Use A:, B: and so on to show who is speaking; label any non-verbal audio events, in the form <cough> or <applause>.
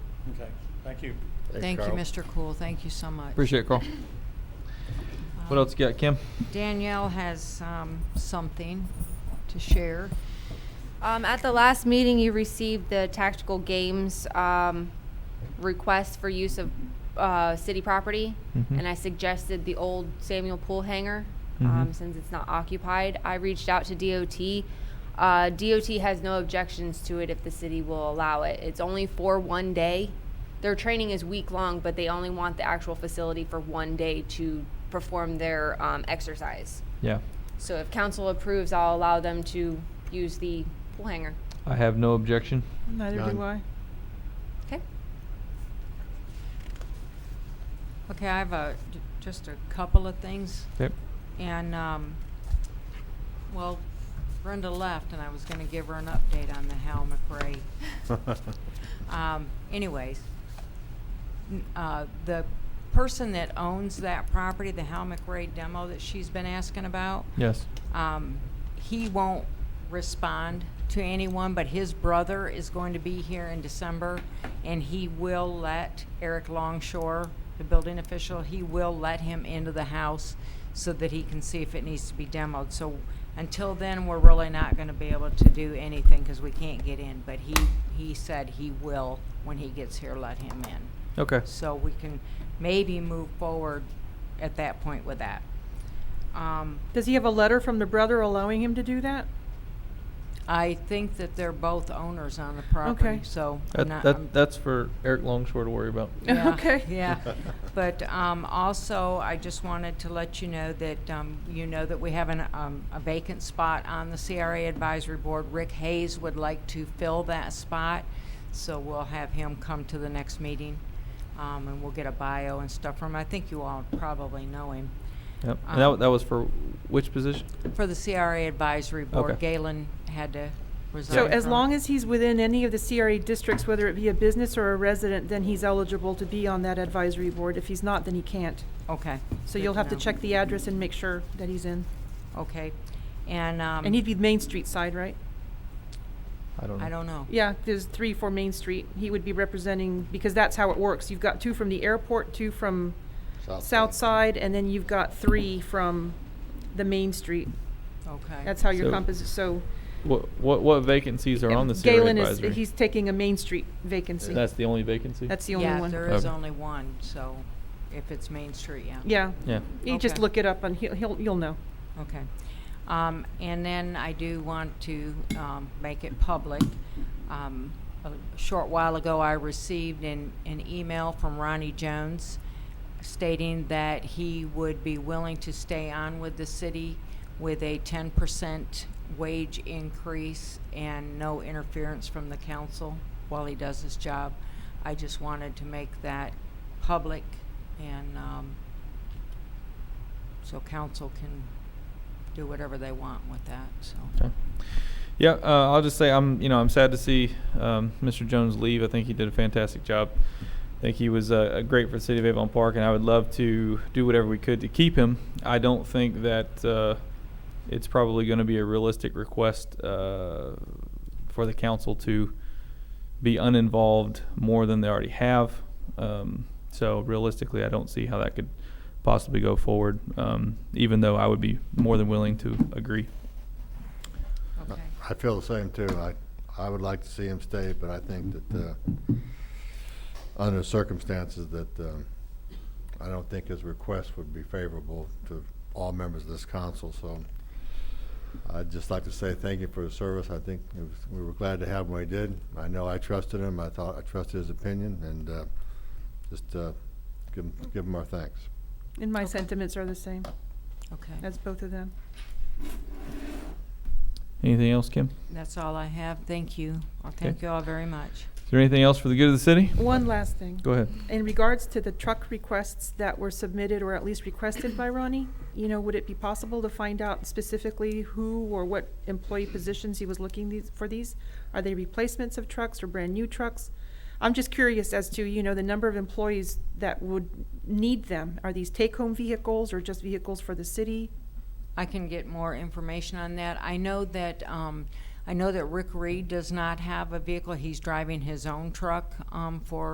A: Okay, thank you.
B: Thanks,
C: Thank you,
B: Carl.
C: Mr. Cool. Thank you so much.
D: Appreciate it, Carl. What else you got, Kim?
C: Danielle has um, something to share.
E: Um, at the last meeting, you received the tactical games um, request for use of uh, city property,
D: Mhm.
E: and I suggested the old Samuel Pool hangar um,
D: Mhm.
E: since it's not occupied. I reached out to DOT. Uh, DOT has no objections to it if the city will allow it. It's only for one day. Their training is week long, but they only want the actual facility for one day to perform their um, exercise.
D: Yeah,
E: So if council approves, I'll allow them to use the pool hanger.
D: I have no objection.
F: Neither do I.
B: None.
E: Okay.
C: Okay, I have a, j- just a couple of things.
D: Okay.
C: And, um, well, Brenda left and I was gonna give her an update on the Hal McRae. Um, anyways, n- uh, the person that owns that property, the Hal McRae demo that she's been asking about,
D: Yes.
C: um, he won't respond to anyone, but his brother is going to be here in December, and he will let Eric Longshore, the building official, he will let him into the house so that he can see if it needs to be demoed. So until then, we're really not going to be able to do anything because we can't get in. But he, he said he will, when he gets here, let him in
D: Okay.
C: so we can maybe move forward at that point with that. Um,
F: Does he have a letter from the brother allowing him to do that?
C: I think that they're both owners on the property,
F: Okay.
C: so.
D: That,
C: I'm not- um, I'm-
D: that, that's for Eric Longshore to worry about.
C: <laughs> yeah,
F: Okay.
C: Yeah, but um, also, I just wanted to let you know that, um, you know that we have an, um, a vacant spot on the CRA Advisory Board. Rick Hayes would like to fill that spot, so we'll have him come to the next meeting, um, and we'll get a bio and stuff from him. I think you all probably know him.
D: Yep. And that,
C: Um,
D: wa- that was for which position?
C: For the CRA Advisory Board,
D: Okay.
C: Galen had to resign.
F: So as
C: from it.
F: long as he's within any of the CRA districts, whether it be a business or a resident, then he's eligible to be on that advisory board. If he's not, then he can't.
C: Okay.
F: So
C: good
F: you'll have to
C: know.
F: check the address and make sure that he's in.
C: Okay, and, um.
F: And he'd be Main Street side, right?
D: I don't know.
C: I don't know.
F: Yeah, there's three for Main Street. He would be representing, because that's how it works. You've got two from the airport, two from South Side, and then you've got three from the Main Street.
C: Okay.
F: That's how your
D: So-
F: composite, so.
D: What, what, what vacancies are on the CRA
F: Galen is,
D: advisory?
F: he's taking a Main Street vacancy.
D: That's the only vacancy?
F: That's the only
C: Yeah,
F: one.
C: there is
D: Okay.
C: only one, so if it's Main Street, yeah.
F: Yeah.
D: Yeah.
F: You just
C: Okay.
F: look it up and he'll, he'll, you'll know.
C: Okay. Um, and then I do want to, um, make it public. Um, a short while ago, I received an, an email from Ronnie Jones stating that he would be willing to stay on with the city with a ten percent wage increase and no interference from the council while he does his job. I just wanted to make that public and, um, so council can do whatever they want with that, so.
D: Okay. Yeah, uh, I'll just say I'm, you know, I'm sad to see um, Mr. Jones leave. I think he did a fantastic job. I think he was uh, uh, great for the city of Avon Park, and I would love to do whatever we could to keep him. I don't think that uh, it's probably going to be a realistic request uh, for the council to be uninvolved more than they already have. Um, so realistically, I don't see how that could possibly go forward. Um, even though I would be more than willing to agree.
C: Okay.
B: I feel the same too. I, I would like to see him stay, but I think that, uh, under the circumstances that, um, I don't think his request would be favorable to all members of this council, so I'd just like to say thank you for his service. I think it was, we were glad to have him when he did. I know I trusted him. I thought, I trusted his opinion and, uh, just, uh, give him, give him our thanks.
F: And my
C: Okay.
F: sentiments are the same.
C: Okay,
F: That's both of them.
D: Anything else, Kim?
C: that's all I have. Thank you. Well, thank you all very much.
D: Is there anything else for the good of the city?
F: One last thing.
D: Go ahead.
F: In regards to the truck requests that were submitted or at least requested by Ronnie, you know, would it be possible to find out specifically who or what employee positions he was looking these, for these? Are they replacements of trucks or brand new trucks? I'm just curious as to, you know, the number of employees that would need them. Are these take-home vehicles or just vehicles for the city?
C: I can get more information on that. I know that, um, I know that Rick Reed does not have a vehicle. He's driving his own truck, um, for